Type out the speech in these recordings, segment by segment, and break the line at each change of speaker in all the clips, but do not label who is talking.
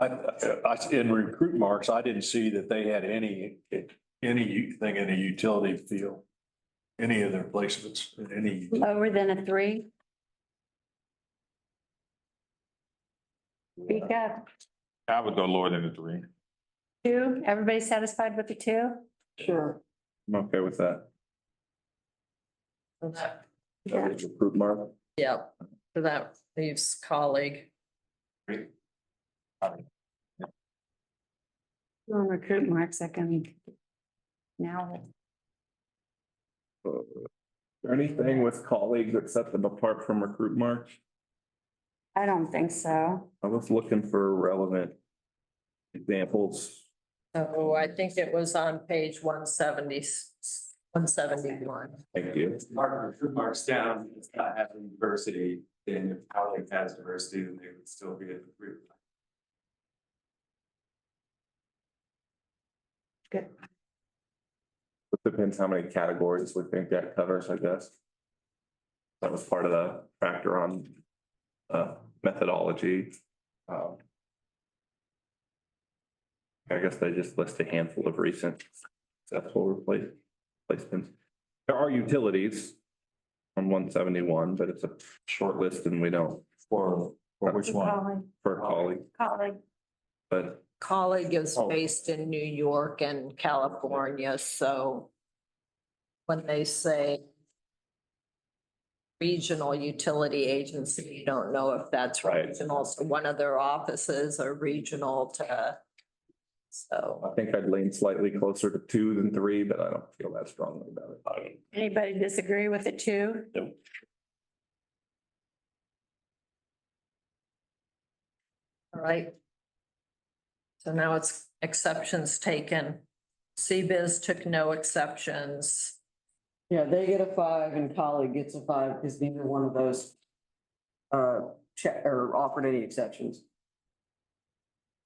I, I, in recruit marks, I didn't see that they had any, anything in a utility field. Any of their placements, in any,
Lower than a three? Speak up.
I would go lower than a three.
Two, everybody satisfied with the two?
Sure.
I'm okay with that.
Yeah.
Recruit mark.
Yep, so that leaves colleague.
On recruit marks, I can. Now,
Anything with colleagues that set them apart from recruit mark?
I don't think so.
I was looking for relevant examples.
So I think it was on page 170 171.
Thank you.
Mark, if marks down, it's not having diversity, then if colleague has diversity, then they would still be at the group.
It Depends how many categories we think that covers, I guess. That was part of the factor on uh methodology. Um, I guess they just list a handful of recent successful replace placements. There are utilities on one seventy-one, but it's a short list and we don't
for, for which one?
Colleague-
for colleague,
Colleague,
but
Colleague is
Oh.
based in New York and California, so when they say regional utility agency, you don't know if that's
Right.
regional, so one of their offices are regional to, so.
I think I'd lean slightly closer to two than three, but I don't feel that strongly about it.
anybody disagree with the two?
All right. So now it's exceptions taken. CBIZ took no exceptions.
Yeah, they get a five and colleague gets a five because neither one of those uh, check or offered any exceptions.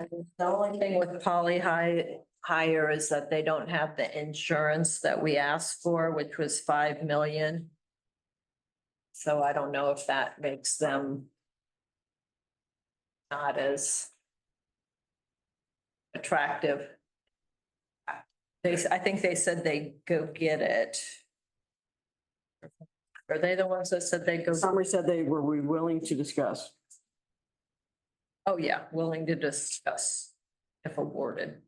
And The only thing with poly hi- hire is that they don't have the insurance that we asked for, which was five million. So I don't know if that makes them not as attractive. They, s- I think they said they go get it. Are they the ones that said they go?
Summary said they were we willing to discuss.
Oh, yeah, willing to discuss if awarded.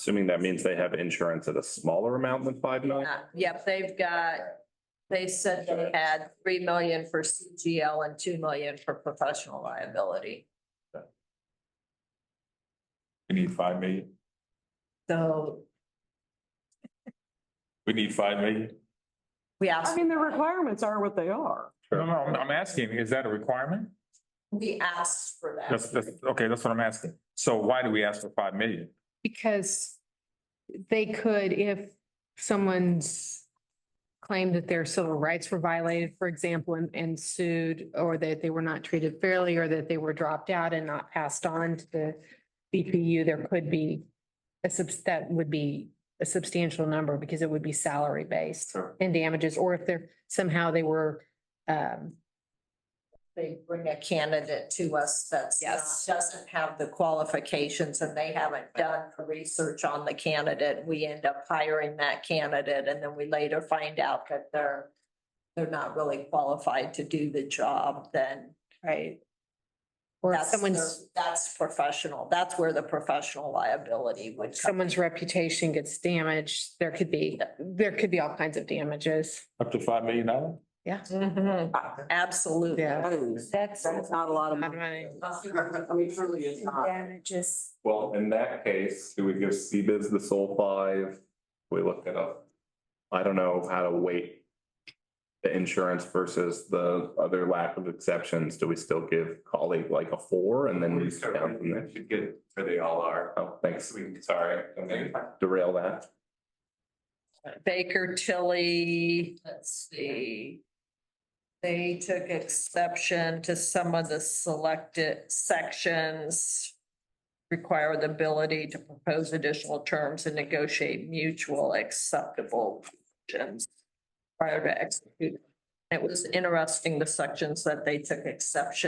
Assuming that means they have insurance at a smaller amount than five million?
Uh, Yep, they've got, they said they had three million for CGL and two million for professional liability.
We need five million.
So
We need five million.
we
I
asked,
mean, the requirements are what they are.
No, no, I'm, I'm asking, is that a requirement?
we asked for
That's,
that.
that's, okay, that's what I'm asking. So why do we ask for five million?
Because they could, if someone's claimed that their civil rights were violated, for example, and, and sued, or that they were not treated fairly, or that they were dropped out and not passed on to the BPU, there could be a subs, that would be a substantial number because it would be salary based
Sure.
and damages, or if they're, somehow they were, um,
They bring a candidate to us that's not-
Yes.
doesn't have the qualifications and they haven't done the research on the candidate. We end up hiring that candidate and then we later find out that they're, they're not really qualified to do the job, then
right? Or if
That's,
someone's,
their- that's professional. That's where the professional liability would come.
someone's reputation gets damaged, there could be, there could be all kinds of damages.
Up to five million dollars?
Mhm. Absolutely.
That is,
That's
that's not a lot of
Not
money.
money.
I mean, truly it's not.
damages.
Well, in that case, do we give CBIZ the sole five? We look it up. I don't know how to weight the insurance versus the other lack of exceptions. Do we still give colleague like a four and then we
We
start down from there?
should get where they all are.
Oh, thanks.
We can-
Sorry, I'm gonna derail that.
Baker Tilly, let's see. They took exception to some of the selected sections. Require the ability to propose additional terms and negotiate mutual acceptable terms prior to execute. It was interesting, the sections that they took exception